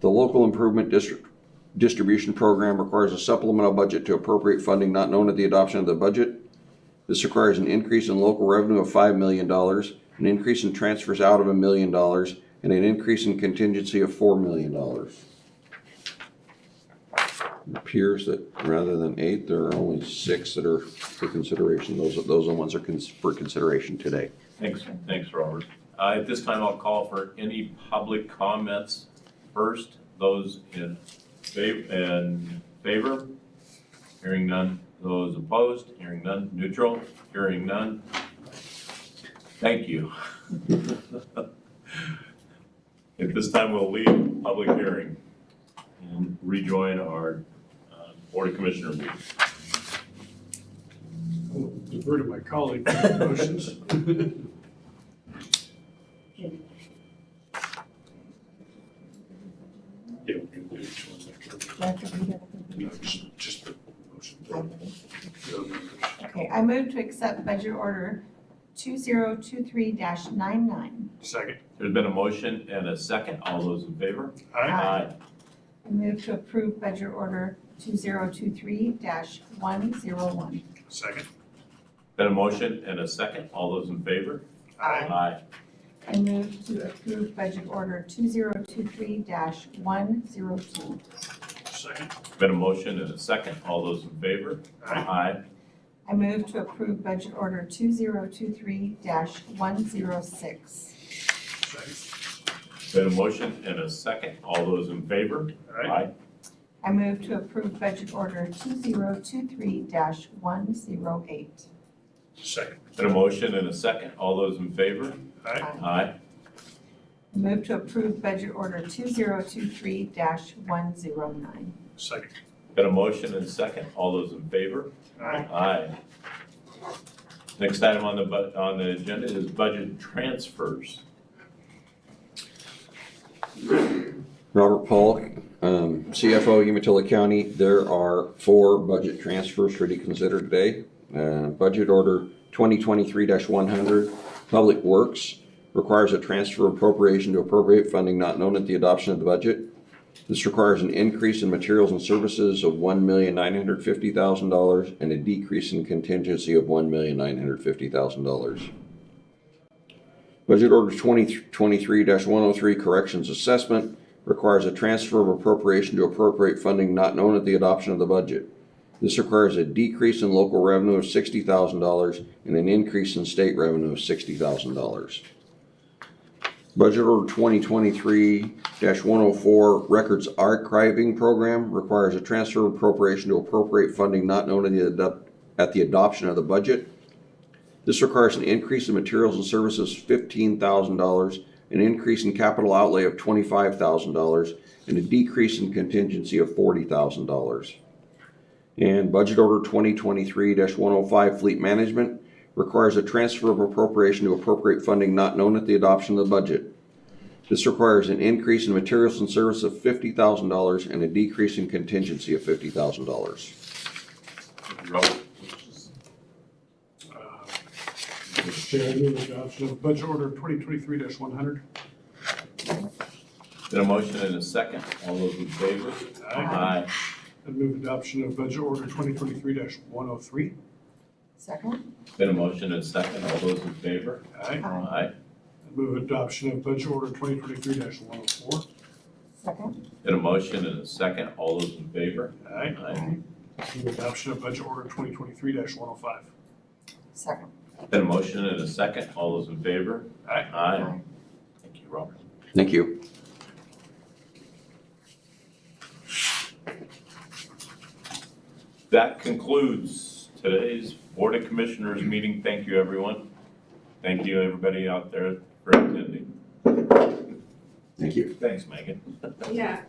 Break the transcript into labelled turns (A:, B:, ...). A: The local improvement district distribution program requires a supplemental budget to appropriate funding not known at the adoption of the budget. This requires an increase in local revenue of five million dollars, an increase in transfers out of a million dollars, and an increase in contingency of four million dollars. It Appears that rather than eight, there are only six that are for consideration. Those are, those are the ones that are cons- for consideration today.
B: Thanks, thanks, Robert. Uh, At this time, I'll call for any public comments first. Those in favor, in favor? Hearing none. Those opposed? Hearing none. Neutral? Hearing none. Thank you. At this time, we'll leave public hearing and rejoin our uh, Board of Commissioner meeting.
C: I'll Defer to my colleague for the motions. Yeah, we can do each one separately. No, just- just the motion.
D: Okay, I move to accept budget order two zero two three dash nine nine.
C: Second.
B: There's been a motion and a second. All those in favor?
C: Aye.
D: I move to approve budget order two zero two three dash one zero one.
C: Second.
B: Been a motion and a second. All those in favor? Aye.
D: I move to approve budget order two zero two three dash one zero two.
C: Second.
B: Been a motion and a second. All those in favor?
C: Aye.
D: I move to approve budget order two zero two three dash one zero six.
C: Second.
B: Been a motion and a second. All those in favor?
D: I move to approve budget order two zero two three dash one zero eight.
C: Second.
B: Been a motion and a second. All those in favor?
C: Aye.
B: Aye.
D: Move to approve budget order two zero two three dash one zero nine.
C: Second.
B: Been a motion and a second. All those in favor?
C: Aye.
B: Aye. Next item on the bu, on the agenda is budget transfers.
A: Robert Paul, um, CFO, Umatilla County, there are four budget transfers for you to consider today. Uh, Budget Order 2023-100, Public Works, requires a transfer appropriation to appropriate funding not known at the adoption of the budget. This requires an increase in materials and services of $1,950,000 and a decrease in contingency of $1,950,000. Budget Order 2023-103 Corrections Assessment requires a transfer of appropriation to appropriate funding not known at the adoption of the budget. This requires a decrease in local revenue of $60,000 and an increase in state revenue of $60,000. Budget Order 2023-104 Records Archiving Program requires a transfer of appropriation to appropriate funding not known at the adop- at the adoption of the budget. This requires an increase in materials and services fifteen thousand dollars, an increase in capital outlay of twenty-five thousand dollars, and a decrease in contingency of forty thousand dollars. And Budget Order twenty twenty-three one oh five Fleet Management requires a transfer of appropriation to appropriate funding not known at the adoption of the budget. This requires an increase in materials and service of fifty thousand dollars and a decrease in contingency of fifty thousand dollars.
B: Robert?
C: Uh, Mr. Chair, I move adoption of budget order twenty twenty-three one hundred.
B: Been a motion and a second. All those in favor? Aye.
C: I move adoption of budget order twenty twenty-three one oh three.
D: Second?
B: Been a motion and a second. All those in favor?
C: Aye.
D: Aye.
B: Aye.
C: I move adoption of budget order twenty twenty-three one oh four.
D: Second?
B: Been a motion and a second. All those in favor?
C: Aye.
B: Aye.
C: Move adoption of budget order twenty twenty-three one oh five.
D: Second.
B: Been a motion and a second. All those in favor?
C: Aye.
B: Aye. Thank you, Robert.
A: Thank you.
B: That concludes today's Board of Commissioners meeting. Thank you, everyone. Thank you, everybody out there for attending.
A: Thank you.
B: Thanks, Megan.
E: Yeah,